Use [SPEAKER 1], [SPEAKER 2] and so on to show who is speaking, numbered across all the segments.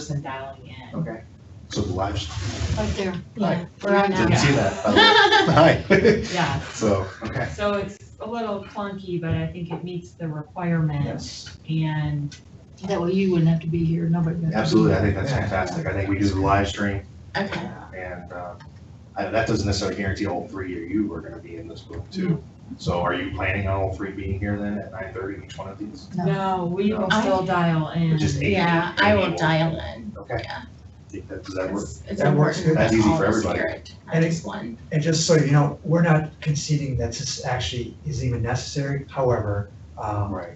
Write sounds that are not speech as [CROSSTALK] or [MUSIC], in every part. [SPEAKER 1] person dialing in.
[SPEAKER 2] Okay.
[SPEAKER 3] So the live,
[SPEAKER 4] Right there.
[SPEAKER 1] Yeah.
[SPEAKER 4] We're on
[SPEAKER 3] didn't
[SPEAKER 4] now.
[SPEAKER 3] see that. by
[SPEAKER 4] [LAUGHS]
[SPEAKER 3] the way.
[SPEAKER 1] Yeah,
[SPEAKER 3] Hi. [LAUGHS] So, okay.
[SPEAKER 1] so it's a little clunky, but I think it meets the requirement
[SPEAKER 3] Yes,
[SPEAKER 1] and,
[SPEAKER 4] That way you wouldn't have to be here, nobody. would have to be
[SPEAKER 3] absolutely. I
[SPEAKER 4] here.
[SPEAKER 3] think that's fantastic. I think we do the live stream
[SPEAKER 4] Okay.
[SPEAKER 3] and, uh, I- that doesn't necessarily guarantee all three of you are gonna be in this room too.
[SPEAKER 4] Mm-hmm.
[SPEAKER 3] So are you planning on all three being here then at nine thirty each one of these?
[SPEAKER 4] No.
[SPEAKER 1] no, we will
[SPEAKER 5] I-
[SPEAKER 1] still dial in.
[SPEAKER 3] Or just eight?
[SPEAKER 5] Yeah, I will
[SPEAKER 3] Maybe.
[SPEAKER 5] dial in.
[SPEAKER 3] Okay.
[SPEAKER 5] Yeah.
[SPEAKER 3] Think that- Does that work?
[SPEAKER 5] It's it's
[SPEAKER 2] That works
[SPEAKER 5] important
[SPEAKER 2] good.
[SPEAKER 3] That's
[SPEAKER 5] that
[SPEAKER 3] easy
[SPEAKER 5] all
[SPEAKER 3] for
[SPEAKER 5] of us
[SPEAKER 3] everybody.
[SPEAKER 5] hear it, not
[SPEAKER 2] And
[SPEAKER 5] just one.
[SPEAKER 2] And just so you know, we're not conceding that this actually is even necessary. However, um,
[SPEAKER 3] Right.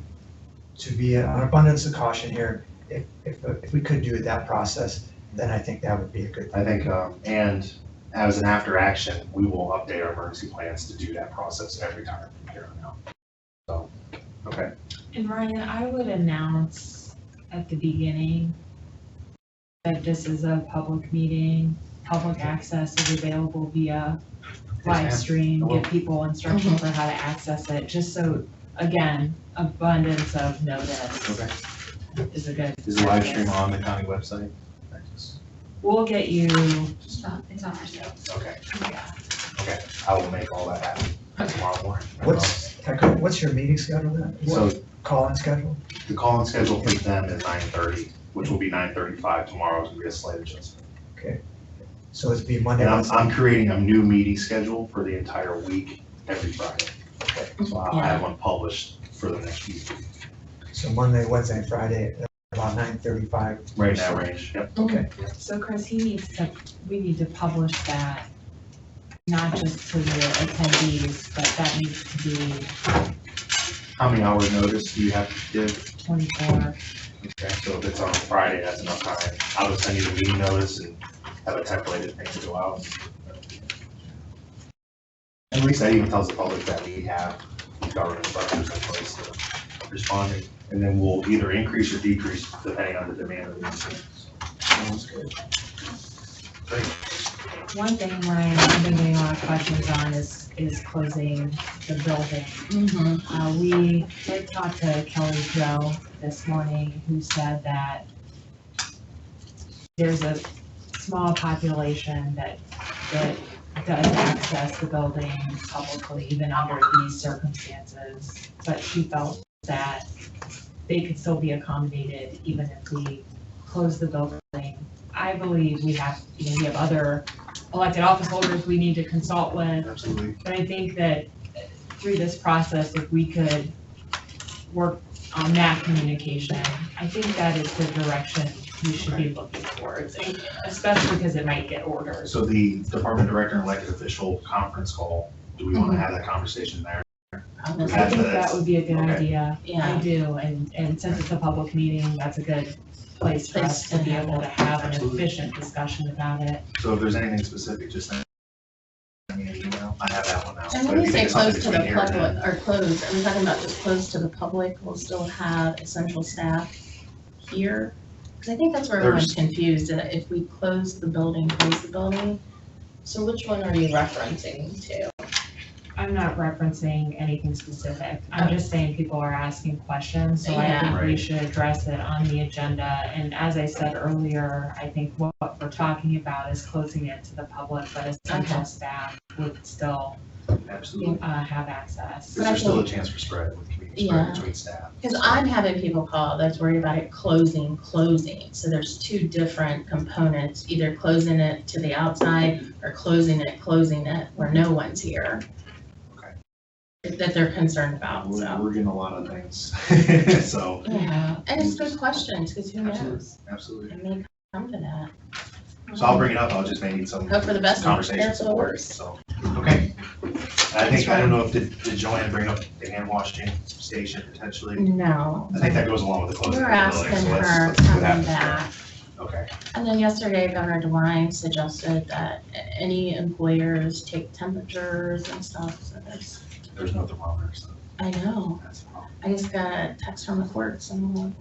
[SPEAKER 2] to be an abundance of caution here, if, if, uh, if we could do that process, then I think that would be a good
[SPEAKER 3] I
[SPEAKER 2] thing.
[SPEAKER 3] think, um, and as an after action, we will update our emergency plans to do that process every time from here on out. So, okay.
[SPEAKER 1] And Ryan, I would announce at the beginning that this is a public meeting, public access is available via live
[SPEAKER 3] ma'am. I
[SPEAKER 1] stream,
[SPEAKER 3] will.
[SPEAKER 1] give people instructions
[SPEAKER 5] Mm-hmm.
[SPEAKER 1] on how to access it, just so, again, abundance of notice
[SPEAKER 3] Okay.
[SPEAKER 1] is a good.
[SPEAKER 3] Is the live stream on the county website? I just-
[SPEAKER 1] We'll get you,
[SPEAKER 5] It's not- It's on our side.
[SPEAKER 3] Okay,
[SPEAKER 1] yeah,
[SPEAKER 3] I will make all that happen tomorrow morning.
[SPEAKER 2] What's, can I go- what's your meeting schedule then?
[SPEAKER 3] So
[SPEAKER 2] What, call-in schedule?
[SPEAKER 3] the call-in schedule for them is nine thirty, which will be nine thirty-five tomorrow, it's gonna be a slight adjustment.
[SPEAKER 2] So it'd be Monday,
[SPEAKER 3] And I'm,
[SPEAKER 2] Wednesday.
[SPEAKER 3] I'm creating a new meeting schedule for the entire week, every Friday. So I'll have one published for the next week,
[SPEAKER 2] so Monday, Wednesday, and Friday, at about nine thirty-five.
[SPEAKER 3] right in that range, yep.
[SPEAKER 2] Okay.
[SPEAKER 1] so Chris, he needs to, we need to publish that, not just to the attendees, but that needs to be
[SPEAKER 3] How many hours notice do you have to give?
[SPEAKER 1] twenty-four
[SPEAKER 3] Okay, so if it's on a Friday, that's enough time. I'll just send you the meeting notice and have a templated thing to go out. At least that even tells the public that we have government structures in place to respond, and then we'll either increase or decrease depending on the demand of the insurance.
[SPEAKER 2] Sounds good.
[SPEAKER 1] One thing, Ryan, I've been getting a lot of questions on is, is closing the building.
[SPEAKER 5] Mhm.
[SPEAKER 1] Uh, we did talk to Kelly Joe this morning, who said that there's a small population that, that does access the building publicly, even under these circumstances. But she felt that they could still be accommodated even if we close the building. I believe we have, you know, we have other elected office holders we need to consult with.
[SPEAKER 3] Absolutely.
[SPEAKER 1] But I think that through this process, if we could work on that communication, I think that is the direction we should be looking towards, and especially because it might get ordered.
[SPEAKER 3] So the department director and elected official conference call, do we want to have that conversation there?
[SPEAKER 1] I think that would be a good
[SPEAKER 3] Okay.
[SPEAKER 1] idea. I
[SPEAKER 5] Yeah,
[SPEAKER 1] do, and, and since it's a public meeting, that's a good place for us to be able to have an
[SPEAKER 3] Absolutely.
[SPEAKER 1] efficient discussion about it.
[SPEAKER 3] So if there's anything specific, just send me an email. I have that one now.
[SPEAKER 5] and
[SPEAKER 3] But
[SPEAKER 5] when we
[SPEAKER 3] if you
[SPEAKER 5] say
[SPEAKER 3] think something
[SPEAKER 5] close to the
[SPEAKER 3] between here and then-
[SPEAKER 5] public, or close, are we talking about just close to the public, we'll still have essential staff here? Because I think that's where everyone's confused, that if we close the building, close the building, so which one are you referencing to?
[SPEAKER 1] I'm not referencing anything specific. I'm just saying people are asking questions, so I
[SPEAKER 5] Yeah.
[SPEAKER 1] think we
[SPEAKER 3] Right.
[SPEAKER 1] should address it on the agenda. And as I said earlier, I think what what we're talking about is closing it to the public, but essential
[SPEAKER 5] Okay.
[SPEAKER 1] staff would still
[SPEAKER 3] Absolutely.
[SPEAKER 1] uh, have access.
[SPEAKER 3] Is there still a chance for spread with community
[SPEAKER 5] Yeah.
[SPEAKER 3] spread between staff?
[SPEAKER 5] Because I'm having people call that's worried about it closing, closing. So there's two different components, either closing it to the outside or closing it, closing it where no one's here. That they're concerned about,
[SPEAKER 3] We're,
[SPEAKER 5] so.
[SPEAKER 3] we're getting a lot of things. [LAUGHS] So,
[SPEAKER 5] Yeah, and it's good questions, because who knows?
[SPEAKER 3] absolutely.
[SPEAKER 5] It may come to that.
[SPEAKER 3] So I'll bring it up. I'll just maybe some
[SPEAKER 5] Hope for the best, and
[SPEAKER 3] conversation.
[SPEAKER 5] prepare for the
[SPEAKER 3] support,
[SPEAKER 5] worst.
[SPEAKER 3] So, okay. I think, I don't know if, did did Joanne bring up the hand washing station potentially?
[SPEAKER 5] No,
[SPEAKER 3] I think that goes along with the closing
[SPEAKER 5] we're
[SPEAKER 3] of the building.
[SPEAKER 5] asking
[SPEAKER 3] so let's-
[SPEAKER 5] her
[SPEAKER 3] let's see what
[SPEAKER 5] coming
[SPEAKER 3] happens there.
[SPEAKER 5] back.
[SPEAKER 3] Okay,
[SPEAKER 5] And then yesterday, Governor DeWine suggested that a- any employers take temperatures and stuff, so there's,
[SPEAKER 3] there's no thermometer, so
[SPEAKER 5] I know.
[SPEAKER 3] that's a problem.
[SPEAKER 5] I just got a text from the courts and.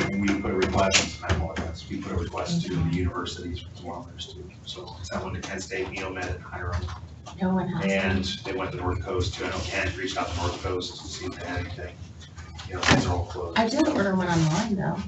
[SPEAKER 3] And we put a request, I don't know what that's, we put a request to
[SPEAKER 5] Mm-hmm.
[SPEAKER 3] the universities for kilometers too. So that went to Kent State, Neomed, and Hiram.
[SPEAKER 5] No one has.
[SPEAKER 3] And they went to North Coast too. I know Ken reached out to North Coast to see if they had anything. You know, things are all closed.
[SPEAKER 5] I did order one online though.